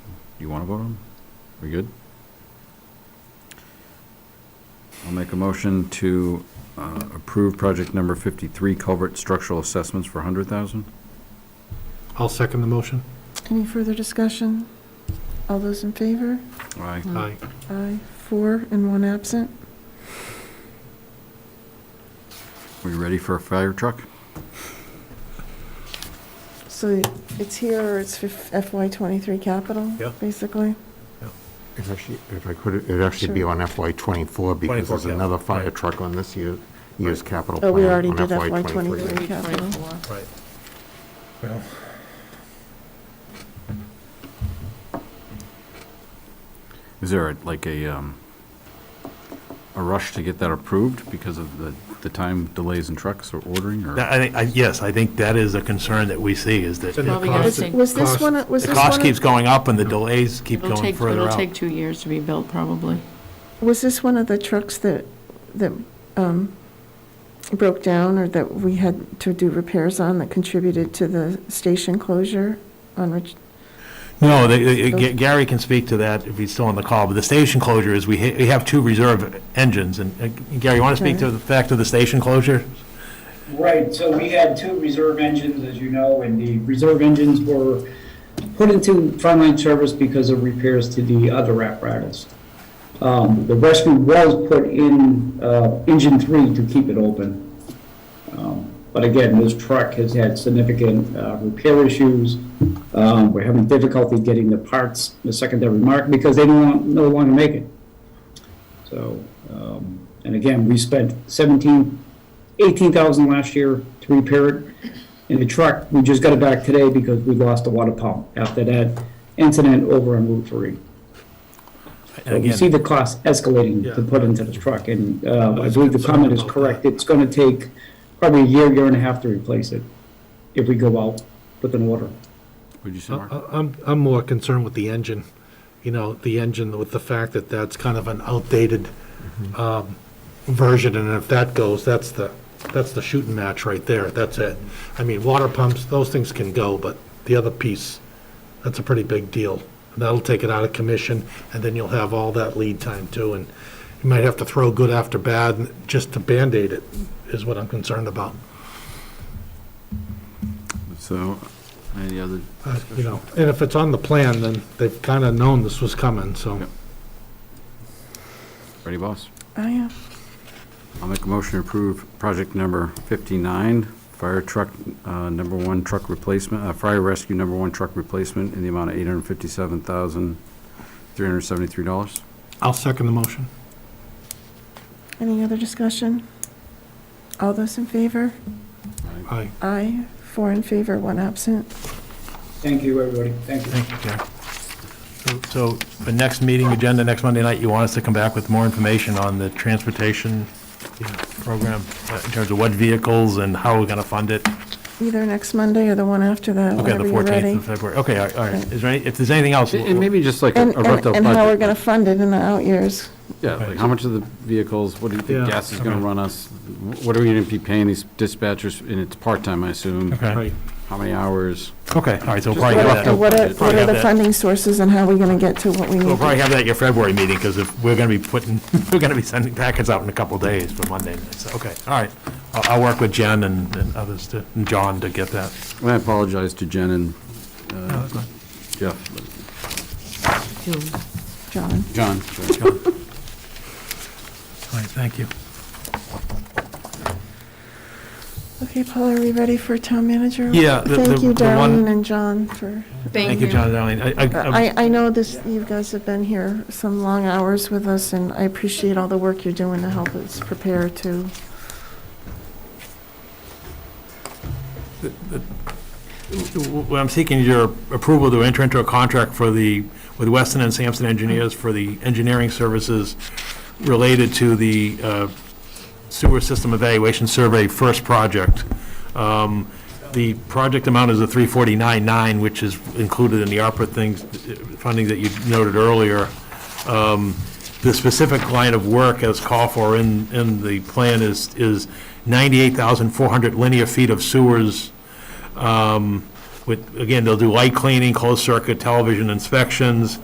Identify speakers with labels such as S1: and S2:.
S1: you want to vote on? We good? I'll make a motion to uh, approve project number 53 culvert structural assessments for 100,000.
S2: I'll second the motion.
S3: Any further discussion? All those in favor?
S1: Aye.
S4: Mm.
S2: Aye.
S3: Aye, four and one absent.
S1: We ready for a fire truck?
S3: So it's here or it's FY '23 capital?
S2: Yeah.
S3: Basically?
S5: It's actually, if I could, it'd actually be
S3: Sure.
S5: on FY '24 because
S2: 24,
S5: there's
S2: yeah,
S5: another fire
S2: right.
S5: truck on this year, year's capital
S3: Oh,
S5: plan.
S3: we already
S5: on
S3: did
S5: FY
S3: FY
S5: 23.
S3: '23 capital.
S2: Right.
S1: Is there a- like a, um, a rush to get that approved because of the, the time delays in trucks or ordering or?
S6: That- I think, I- yes, I think that is a concern that we see, is that
S2: It's in the
S4: Well, we
S2: cost-
S4: gotta
S3: Was-
S4: see.
S3: Was this
S2: cost-
S3: one, was this
S6: the
S3: one,
S6: cost keeps
S3: of-
S6: going up and the delays keep
S4: It'll
S6: going
S4: take,
S6: further
S4: it'll
S6: out.
S4: take two years to be built, probably.
S3: was this one of the trucks that, that um, broke down or that we had to do repairs on that contributed to the station closure on Rich?
S6: No, they- uh, Ga- Gary can speak to that if he's still on the call, but the station closure is, we ha- we have two reserve engines, and uh, Gary, you want to speak to the fact of the station closure?
S7: Right, so we had two reserve engines, as you know, and the reserve engines were put into frontline service because of repairs to the other apparatus. Um, The rescue was put in uh, engine three to keep it open. Um, But again, this truck has had significant uh, repair issues. Um, We're having difficulty getting the parts, the secondary market, because they don't, want- no longer make it. So, um, and again, we spent 17, 18,000 last year to repair it. And the truck, we just got it back today because we lost the water pump after that incident over on Route 3.
S6: And
S7: You see
S6: again,
S7: the cost escalating to
S2: Yeah.
S7: put into the truck, and uh, I
S2: was
S7: believe the
S2: concerned
S7: comment is
S2: about
S7: correct.
S2: that.
S7: It's going to take probably a year, year and a half to replace it if we go out with an order.
S1: Would you say,
S2: I-
S1: Mark?
S2: I- I'm, I'm more concerned with the engine, you know, the engine with the fact that that's kind of an outdated
S6: Mm-hmm.
S2: um, version, and if that goes, that's the, that's the shooting match right there, that's it. I mean, water pumps, those things can go, but the other piece, that's a pretty big deal. And That'll take it out of commission, and then you'll have all that lead time too, and you might have to throw good after bad just to Band-Aid it, is what I'm concerned about.
S1: So, any other?
S2: Uh, You know, and if it's on the plan, then they've kind of known this was coming, so.
S1: Yep. Ready, boss?
S3: I am.
S1: I'll make a motion to approve project number 59, fire truck, uh, number one truck replacement, uh, fire rescue number one truck replacement in the amount of $857,373.
S2: I'll second the motion.
S3: Any other discussion? All those in favor?
S2: Aye.
S3: Aye, four in favor, one absent.
S7: Thank you, everybody. Thank you.
S6: thank you, Gary. So- So, the next meeting agenda, next Monday night, you want us to come back with more information on the transportation you know, program, uh, in terms of what vehicles and how we're going to fund it?
S3: Either next Monday or the one after that,
S6: Okay, the
S3: whenever you're
S6: 14th
S3: ready.
S6: of February, okay, all right, all right. Is there any, if there's anything else?
S1: And and maybe just like a
S3: And,
S1: a rough
S3: and
S1: up
S3: and how we're
S1: budget.
S3: gonna fund it in the out years.
S1: Yeah, like how much of the vehicles, what do you
S2: Yeah,
S1: think gas is going
S6: okay.
S1: to run us? What are we going to be paying these dispatchers? And it's part-time, I assume.
S6: Okay,
S2: Right.
S1: How many hours?
S6: okay, all right, so we'll
S1: Just
S6: probably
S1: a
S6: have
S1: rough
S6: that.
S3: And what are,
S1: Probably
S3: what are
S6: have
S3: the
S6: that.
S3: funding sources and how are we gonna get to what we
S6: We'll
S3: need?
S6: probably have that at your February meeting, because if, we're going to be putting, we're going to be sending packets out in a couple days for Monday. So, Okay, all right. I'll, I'll work with Jen and, and others to, and John to get that.
S1: And I apologize to Jen and uh, Jeff, but-
S3: John,
S1: John. sorry.
S6: All right, thank you.
S3: okay, Paul, are we ready for town manager?
S6: Yeah, the- the-
S3: Thank you,
S6: the one- Um,
S3: Darlene and John, for,
S6: Thank you, John and Darlene. I- I-
S3: I, I know this, you guys have been here some long hours with us, and I appreciate all the work you're doing to help us prepare to.
S6: Well, I'm seeking your approval to enter into a contract for the, with Weston and Sampson Engineers for the engineering services related to the uh, sewer system evaluation survey first project. Um, The project amount is a 349.9, which is included in the ARPA things, funding that you noted earlier. Um, The specific line of work as called for in, in the plan is, is 98,400 linear feet of sewers um, with, again, they'll do light cleaning, closed circuit television inspections,